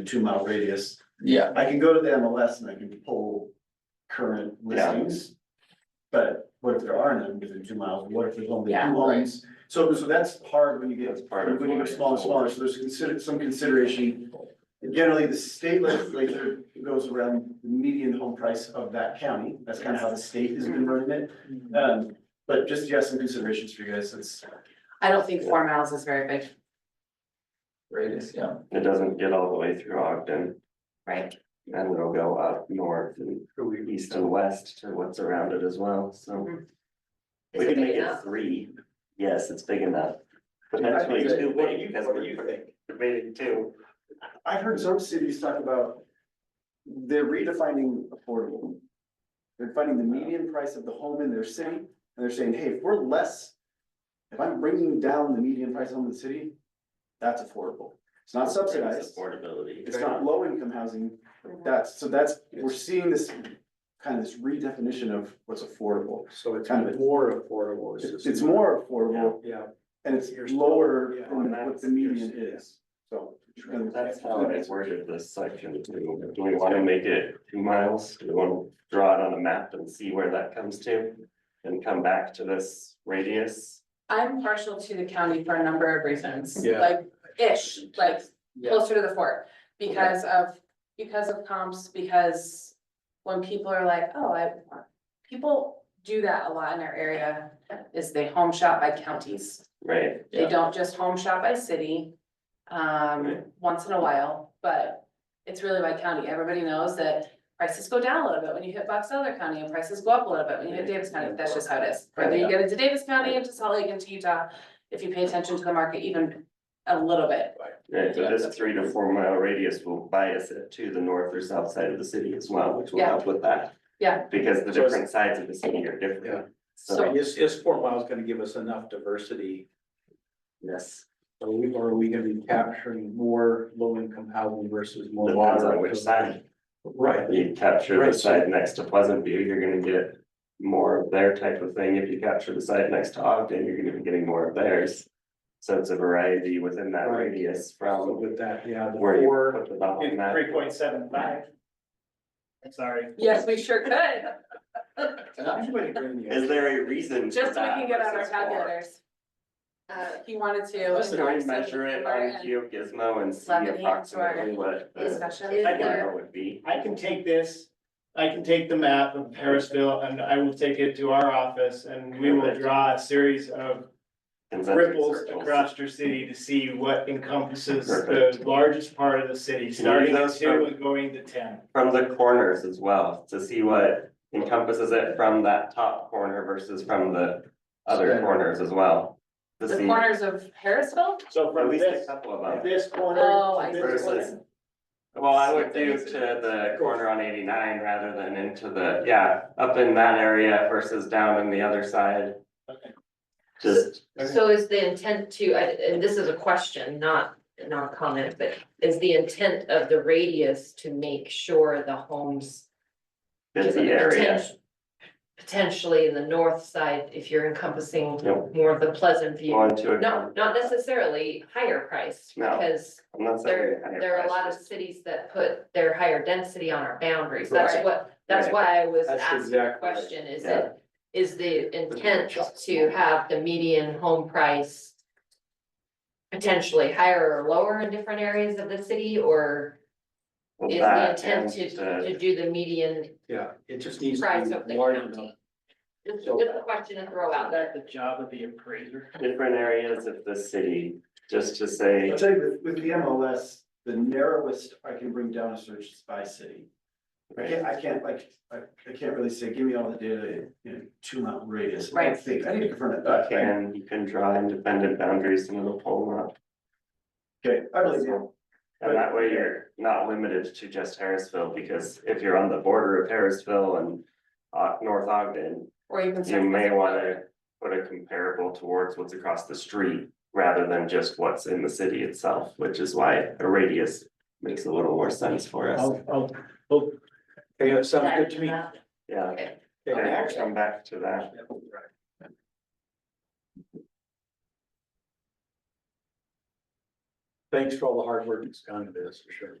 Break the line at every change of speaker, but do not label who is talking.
two mile radius.
Yeah,
I can go to the MLS and I can pull current
Yeah.
listings. But what if there are none within two miles? What if there's only two
Yeah.
homes? So, so that's hard when you get,
That's part of
when you
what
get
I-
smaller, and smaller. So there's consider, some consideration. Generally, the state legislature goes around the median home price of that county. That's kind of how the state has been running it. Um, but just, yeah, some considerations for you guys. It's,
I don't think four miles is very big,
radius, yeah.
It doesn't get all the way through Ogden
right?
and it'll go up north and east and west to what's around it as well, so.
Mm-hmm. Is
We
it
could
big
make it
enough?
three, yes, it's big enough. Potentially too big, that's what you think, debating two.
I've heard some cities talk about, they're redefining affordable. They're finding the median price of the home in their city, and they're saying, hey, if we're less, if I'm bringing down the median price of home in the city, that's affordable. It's not subsidized,
Affordability.
it's not low income housing, that's, so that's, we're seeing this kind of this redefinition of what's affordable.
So it's
Kind of.
more affordable. is
It's
this-
it's more affordable
Yeah,
and it's lower than
Yeah.
what the median is, so.
That's how I worded this section too. Do we wanna make it two miles? Do we wanna draw it on a map and see where that comes to? And come back to this radius?
I'm partial to the county for a number of reasons,
Yeah.
like ish, like
Yeah,
closer to the fort. Because of, because of comps, because when people are like, oh, I, people do that a lot in our area. Is they home shop by counties,
Right,
they
Yeah.
don't just home shop by city, um,
Right.
once in a while, but. It's really by county, everybody knows that prices go down a little bit when you hit Box Elder County and prices go up a little bit when you hit Davis County, that's just how it is. Whether you get into Davis County, into Salt Lake, into Utah, if you pay attention to the market even a little bit,
right, but this three to four mile radius will bias it to the north or south side of the city as well, which will
Yeah.
help with that.
Yeah.
Because the
So it's-
different sides of the city are different.
So-
So,
is, is four miles gonna give us enough diversity?
yes,
Are we, or are we gonna be capturing more low income housing versus more?
depends on
moderate?
which side.
Right,
You capture the
Right, so-
side next to Pleasant View, you're gonna get more of their type of thing. If you capture the side next to Ogden, you're gonna be getting more of theirs. So it's a variety within that
Right.
radius
so
from
with that, yeah, the
where you
four,
put the dot on
In
that.
three point seven five. I'm sorry.
Yes, we sure could,
and I-
Everybody bring the-
Is there a reason? for
just so we
that
can get out our
versus four?
calculators. Uh, he wanted to.
Just go and
so
measure it
we're
on
in
GeoGizmo and see
Lemonade to our
approximately what the
Discussion.
Is there-
number would be.
I can take this, I can take the map of Harrisville and I will take it to our office and we will draw a series of
Concentric
ripples
circles.
across your city to see what encompasses the
Perfect.
largest part of the city, starting at
those
two and going to ten.
From the corners as well, to see what encompasses it from that top corner versus from the other
Center.
corners as well. To
The
see
corners of Harrisville?
So
at
from
least a
this,
couple of
from
them
this corner
Oh, I
to
see.
this corner.
versus. Well, I would do to the corner on eighty-nine rather than into the, yeah, up in that area versus down in the other side.
Okay.
Just,
So is the intent to, I- and this is a question, not, not a comment, but is the intent of the radius to make sure the homes?
it's the
poten-
area,
Potentially in the north side, if you're encompassing
Yep.
more of the Pleasant View,
going to. a-
no, not necessarily higher priced,
No.
because
I'm not saying
there,
higher
there are a lot of
prices.
cities that put their higher density on our boundaries, that's
Right.
what, that's
Right.
why I was
That's
asking the
exactly right.
question, is
Yeah.
it, is the intent to have the median home price potentially higher or lower in different areas of the city, or
Well,
is
that
the intent
and,
to,
uh,
to do the median
yeah, it just needs
price
to
of the
be large enough.
county? Just,
So-
just a question to throw out there.
the job of the appraiser?
different areas of the city, just to say,
I'll tell you, with, with the MLS, the narrowest I can bring down a search is by city. I
right,
can't, I can't, like, I, I can't really say, give me all the data, you know, two mile radius, I
Right.
think, I need to confirm it,
you
but, okay,
can, you can draw independent boundaries and it'll pull them up.
I believe you.
And that way you're not limited to just Harrisville, because if you're on the border of Harrisville and uh, North Ogden,
Or you can.
you may wanna put a comparable towards what's across the street rather than just what's in the city itself, which is why a radius makes a little more sense for us.
I'll, I'll, I'll, okay, that sounds good to me.
Yeah,
Okay.
and
Okay.
I'll come back to that.
Thanks for all the hard work that's gone into this, for sure.